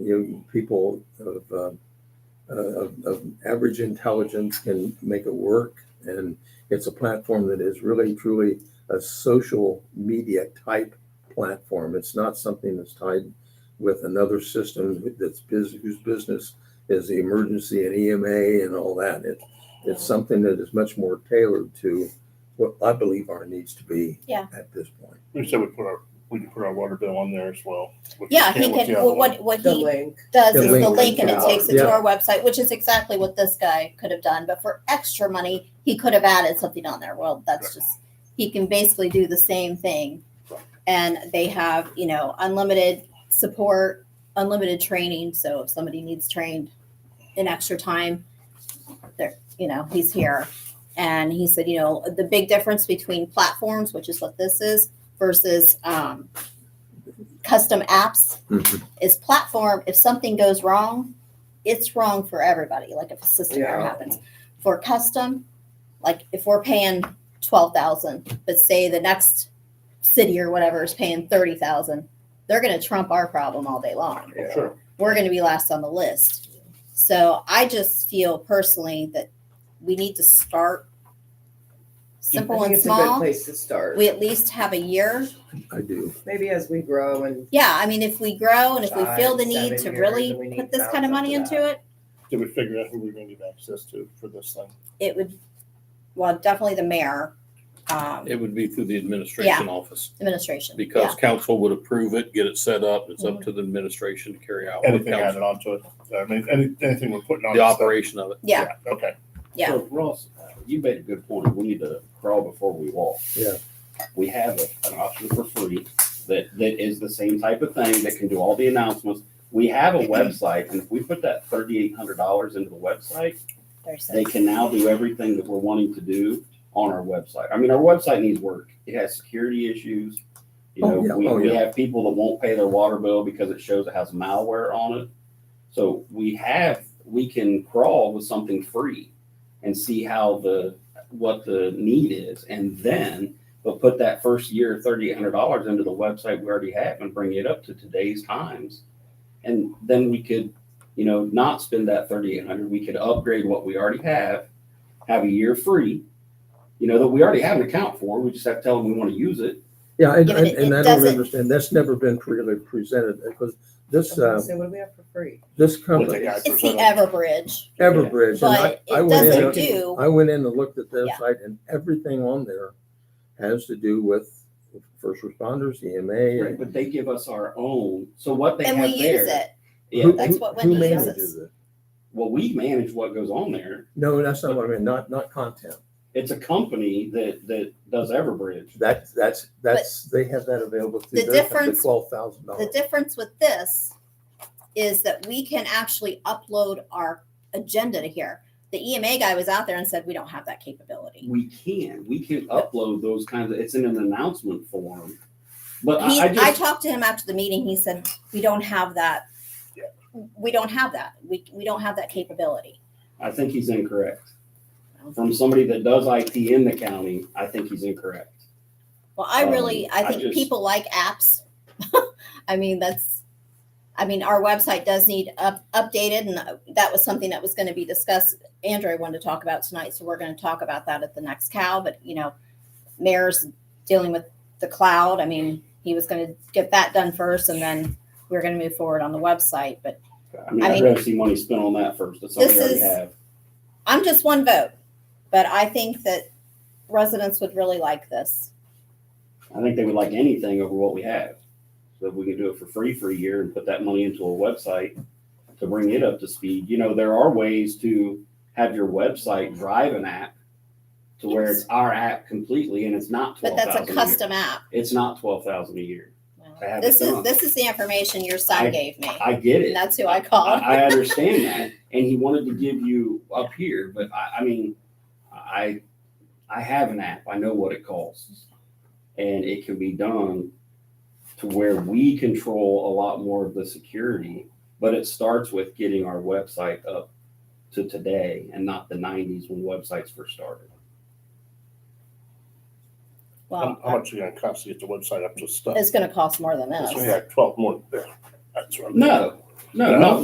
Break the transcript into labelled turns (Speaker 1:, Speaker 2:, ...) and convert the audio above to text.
Speaker 1: you know, people of, uh, uh, of, of average intelligence can make it work. And it's a platform that is really truly a social media type platform. It's not something that's tied with another system that's bus whose business is the emergency and EMA and all that. It, it's something that is much more tailored to what I believe our needs to be
Speaker 2: Yeah.
Speaker 1: at this point.
Speaker 3: We said we put our, we could put our water bill on there as well. which we
Speaker 2: Yeah, he
Speaker 3: can't with
Speaker 2: could,
Speaker 3: the other
Speaker 2: well,
Speaker 3: one.
Speaker 2: what, what
Speaker 4: the
Speaker 2: he
Speaker 4: link.
Speaker 2: does
Speaker 1: The
Speaker 2: is the
Speaker 1: link
Speaker 2: link and it
Speaker 3: out.
Speaker 2: takes it to
Speaker 1: Yeah.
Speaker 2: our website, which is exactly what this guy could have done. But for extra money, he could have added something on there. Well, that's just, he can basically do the same thing. And they have, you know, unlimited support, unlimited training. So if somebody needs trained in extra time, there, you know, he's here. And he said, you know, the big difference between platforms, which is what this is, versus um, custom apps
Speaker 1: Mm-hmm.
Speaker 2: is platform if something goes wrong it's wrong for everybody like if a system error
Speaker 4: Yeah.
Speaker 2: happens for custom like if we're paying 12000 but say the next city or whatever is paying 30000 they're going to trump our problem all day long
Speaker 4: Yeah.
Speaker 3: Sure.
Speaker 2: we're going to be last on the list so i just feel personally that we need to start
Speaker 4: I
Speaker 2: simple
Speaker 4: think
Speaker 2: and
Speaker 4: it's a good
Speaker 2: small
Speaker 4: place to start.
Speaker 2: we at least have a year
Speaker 1: I do.
Speaker 4: Maybe as we grow and
Speaker 2: Yeah, I mean, if we grow and if we feel
Speaker 4: Five,
Speaker 2: the need
Speaker 4: seven
Speaker 2: to
Speaker 4: years,
Speaker 2: really
Speaker 4: and we need
Speaker 2: put this kind of
Speaker 4: thousands
Speaker 2: money
Speaker 4: of
Speaker 2: into
Speaker 4: that.
Speaker 2: it,
Speaker 3: Did we figure out who we we're gonna give access to for this thing?
Speaker 2: it would, well, definitely the mayor, um,
Speaker 5: It would be through the administration office,
Speaker 2: administration.
Speaker 5: because council would approve it, get it set up, it's up to the administration to carry out. with
Speaker 3: Anything added
Speaker 5: council,
Speaker 3: onto it? I mean, any, anything we're putting on.
Speaker 5: The
Speaker 3: this thing?
Speaker 5: operation of it.
Speaker 2: Yeah,
Speaker 3: Okay.
Speaker 2: Yeah.
Speaker 6: So Ross, uh, you made a good point. We need to crawl before we walk.
Speaker 1: Yeah.
Speaker 6: We have a- an option for free that, that is the same type of thing that can do all the announcements. We have a website and if we put that thirty-eight hundred dollars into the website,
Speaker 2: there's
Speaker 6: they can now do everything that we're wanting to do on our website. I mean, our website needs work. It has security issues. You know,
Speaker 1: Oh, yeah.
Speaker 6: we,
Speaker 1: Oh,
Speaker 6: we
Speaker 1: yeah.
Speaker 6: have people that won't pay their water bill because it shows it has malware on it. So we have, we can crawl with something free and see how the, what the need is. And then, but put that first year, thirty-eight hundred dollars into the website we already have and bring it up to today's times. And then we could you know, not spend that thirty-eight hundred, we could upgrade what we already have, have a year free, you know, that we already have an account for, we just have to tell them we want to use it.
Speaker 1: Yeah, and,
Speaker 2: Yeah, but
Speaker 1: and
Speaker 2: it-
Speaker 1: and
Speaker 2: it
Speaker 1: I don't
Speaker 2: doesn't-
Speaker 1: understand. That's never been really presented because this, uh,
Speaker 4: so what do we have for free?
Speaker 1: this
Speaker 3: What they
Speaker 1: company,
Speaker 3: got
Speaker 2: It's the
Speaker 3: presented.
Speaker 2: Everbridge,
Speaker 1: Everbridge, and I,
Speaker 2: but
Speaker 1: I
Speaker 2: it
Speaker 1: went in.
Speaker 2: doesn't
Speaker 1: and-
Speaker 2: do,
Speaker 1: I went in and looked at their
Speaker 2: Yeah.
Speaker 1: site and everything on there has to do with first responders, EMA.
Speaker 6: Right,
Speaker 1: and
Speaker 6: But they give us our own, so what they have
Speaker 2: and we
Speaker 6: there.
Speaker 2: use it.
Speaker 1: who-
Speaker 6: Yeah,
Speaker 2: That's
Speaker 1: who-
Speaker 2: what
Speaker 1: who
Speaker 2: Wendy
Speaker 1: manages
Speaker 2: uses.
Speaker 1: it?
Speaker 6: well, we manage what goes on there,
Speaker 1: No, that's not what I mean, not, not content.
Speaker 6: it's a company that, that does Everbridge.
Speaker 1: That's, that's, that's, they have that available
Speaker 2: The
Speaker 1: through their company,
Speaker 2: difference-
Speaker 1: twelve thousand
Speaker 2: The
Speaker 1: dollars.
Speaker 2: difference with this is that we can actually upload our agenda to here. The EMA guy was out there and said, we don't have that capability.
Speaker 6: We can, we can upload those kinds of, it's in an announcement form, but
Speaker 2: He,
Speaker 6: I, I just.
Speaker 2: I talked to him after the meeting, he said, we don't have that.
Speaker 3: Yeah.
Speaker 2: We don't have that. We, we don't have that capability.
Speaker 6: I think he's incorrect. From somebody that does IT in the county, I think he's incorrect.
Speaker 2: Well, I
Speaker 6: Um,
Speaker 2: really, I
Speaker 6: I
Speaker 2: think
Speaker 6: just-
Speaker 2: people like apps. I mean, that's, I mean, our website does need up, updated, and uh, that was something that was going to be discussed. Andrew wanted to talk about tonight, so we're going to talk about that at the next cow. But you know, mayor's dealing with the cloud. I mean, he was going to get that done first, and then we are going to move forward on the website. But
Speaker 6: I mean,
Speaker 2: I
Speaker 6: I'd
Speaker 2: mean-
Speaker 6: rather see money spent on that first. That's something we
Speaker 2: This
Speaker 6: already
Speaker 2: is-
Speaker 6: have.
Speaker 2: I'm just one vote, but I think that residents would really like this.
Speaker 6: I think they would like anything over what we have. So if we can do it for free for a year and put that money into a website to bring it up to speed, you know, there are ways to have your website drive an app to where it's our app completely and it's not
Speaker 2: But
Speaker 6: twelve
Speaker 2: that's a
Speaker 6: thousand a year.
Speaker 2: custom app.
Speaker 6: It's not twelve thousand a year. I have it
Speaker 2: This is
Speaker 6: done.
Speaker 2: this is the information your son
Speaker 6: I-
Speaker 2: gave me.
Speaker 6: I get it.
Speaker 2: And that's who I called.
Speaker 6: I, I understand that, and he wanted to give you up here, but I, I mean, I, I have an app. I know what it costs, and it can be done to where we control a lot more of the security. But it starts with getting our website up to today and not the '90s when websites first started.
Speaker 2: Well,
Speaker 3: How how much are you gonna cost to get the website up to stuff?
Speaker 2: it's going to cost more than
Speaker 3: That's
Speaker 2: this.
Speaker 3: why you had twelve more there. That's what I'm.
Speaker 6: No, No, not